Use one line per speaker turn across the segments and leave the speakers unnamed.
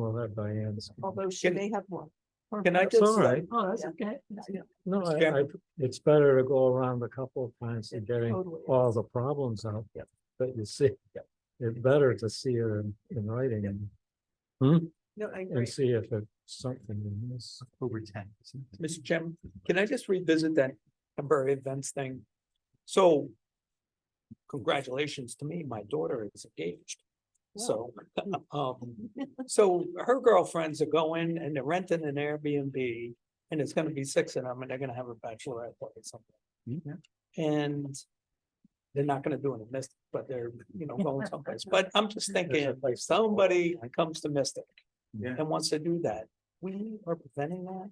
by Diane's.
although she
Can-
may have one.
Can I
That's
just?
all right.
Oh, that's okay.
No,
Scan-
I, I, it's better to go around a couple of times and getting
Totally.
all the problems out.
Yep.
That you see. It's better to see it in, in writing and,
No, I agree.
and see if it's something in this.
October tenth.
Mr. Chairman, can I just revisit that temporary events thing? So congratulations to me, my daughter is engaged. So, um, so her girlfriends are going and they're renting an Airbnb and it's gonna be six of them and they're gonna have a bachelorette party or something. And they're not gonna do it in Mystic, but they're, you know, going someplace. But I'm just thinking, if somebody comes to Mystic
Yeah.
and wants to do that, we are preventing that.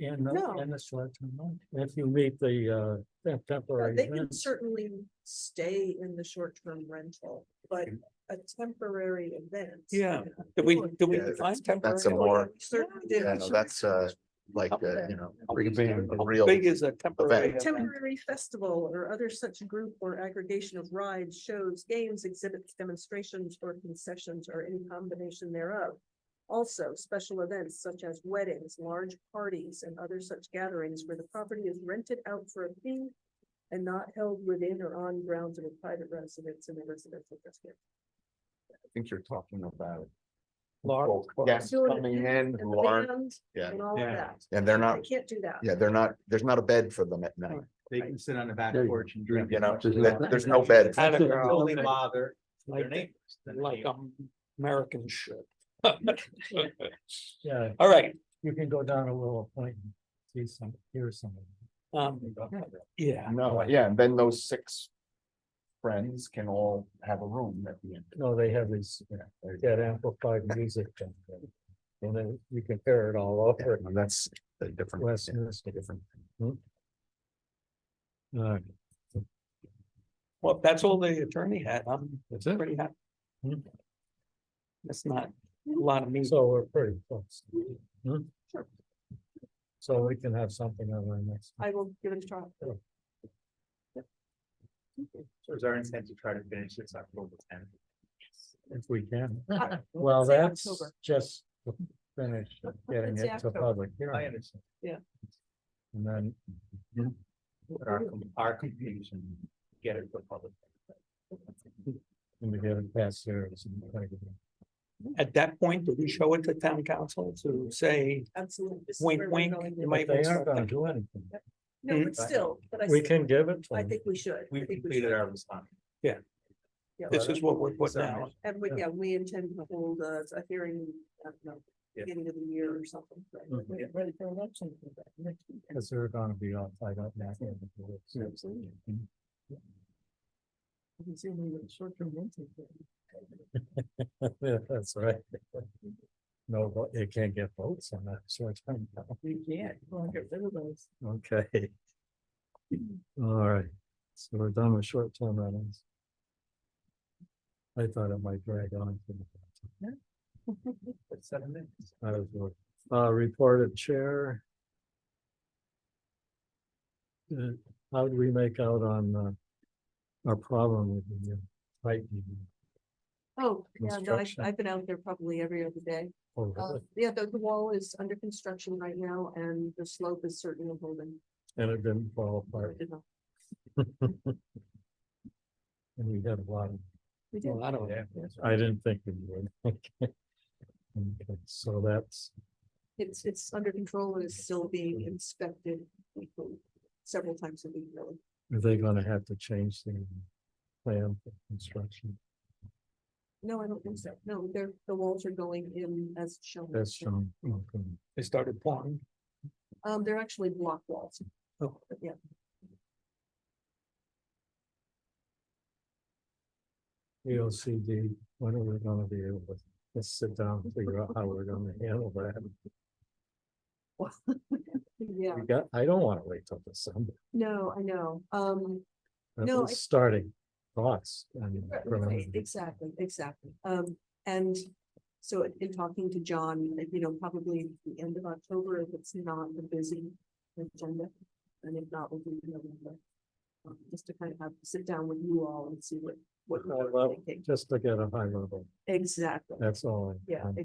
And, the-
No.
and it's led to mind. If you meet the, uh, that
Yeah,
temporary.
They can
events,
certainly stay in the short-term rental, but a temporary event.
Yeah. Did we, did we
Yeah,
define temporary?
That's a more,
Certainly did.
yeah, no, that's uh, like, uh, you know.
How
pretty
big-
standard,
how
real-
Big is a temporary.
A
event?
Temporary festival or other such group or aggregation of rides, shows, games, exhibits, demonstrations, or concessions, or any combination thereof. Also, special events such as weddings, large parties, and other such gatherings where the property is rented out for a fee and not held within or on grounds of a private residence in a residential district.
I think you're talking about.
Large.
Yes,
Doing it
coming in,
And
who
the
aren't,
band
yeah,
and all of
Yeah.
that.
and they're
I
not,
can't do that.
yeah, they're not, there's not a bed for them at night,
They can sit on the back
There you
porch and drink.
you know,
Just-
that- there's no bed.
Had a
Doesn't
girl.
Only bother.
Like-
their neighbors.
Like um, American should.
Yeah,
All right,
you can go down a little point and see some, hear some. of it.
um, yeah,
No, yeah, and then those six. Friends can all have a room at the end.
No, they have these,
Yeah, there you go.
that amplified music. thing, And then you can hear it all
Yeah,
over.
no, That's a different. yeah,
Westminster.
Different.
Uh,
well, if that's all the attorney had. I'm
that's it.
pretty happy.
Hmm.
That's not a lot of me.
So we're pretty close. Hmm? So we can have something on our next.
I will give it a try.
So it's our intent to try to finish this October tenth.
If we can.
I-
Well,
say
that's
October.
just to finish getting
Say
it to
October.
public
I
hearing.
understand.
And then,
But Our, com- our completion, get it for public.
and we get it past there. it's in the paper.
At that point, do we show it to town council to say,
Absolutely. This is
Wink,
where we're
wink,
going
you
with
might
it.
But they
want
aren't
to-
gonna do anything.
No, but still, but I.
We
s-
can give it to
I
them.
think we should. I
We've
think we
completed
should.
our response.
Yeah.
this is what we're putting
Submission.
out?
And we, yeah, we intend to hold a, a hearing, I don't know,
Yeah.
beginning of the year or something. right?
Mhm.
We're Ready for election. for that next week.
Cause they're gonna be all tied up now.
Absolutely. I can see we have short-term rental thing.
Yeah, That's right. No, but you can't get votes on that short time.
You can't, you wanna get rid of those.
Okay. All right, so we're done with short term rentals. I thought it might drag on. for the-
But seven minutes.
I was worried. Uh, report of chair. Uh, How do we make out on, uh, our problem with the uh, tightening?
Oh, yeah, no, I've,
Construction.
I've been out there probably every other day.
Oh,
Uh,
really?
yeah, the, the wall is under construction right now and the slope is certainly holding.
And it didn't fall apart
You know,
and we had a lot of
We
A
did.
lot of it.
I didn't think we would. Okay, Okay, so that's,
It's, it's under control and is still being inspected weekly, several times a week, really.
are they gonna have to change the plan for construction?
No, I don't think so. No, they're, the walls are going in as shown.
That's shown. okay.
They started pouring.
Um, they're actually block walls.
Oh.
But Yeah,
The OCD, when are we gonna be able to, let's sit down and figure out how we're gonna handle that.
yeah,
We got, I don't wanna wait till December.
no, I know. Um,
That
No,
was
I-
Starting thoughts. I mean,
Right,
from-
right, Exactly, exactly. Um, and so in- in talking to John, like, you know, probably the end of October, if it's not a busy agenda. And if not, we'll do it in November. Um, Just to kind of have, sit down with you all and see what, what
I
you're
love-
thinking.
Just to get a high level,
Exactly.
that's all. I-
Yeah,
I'm-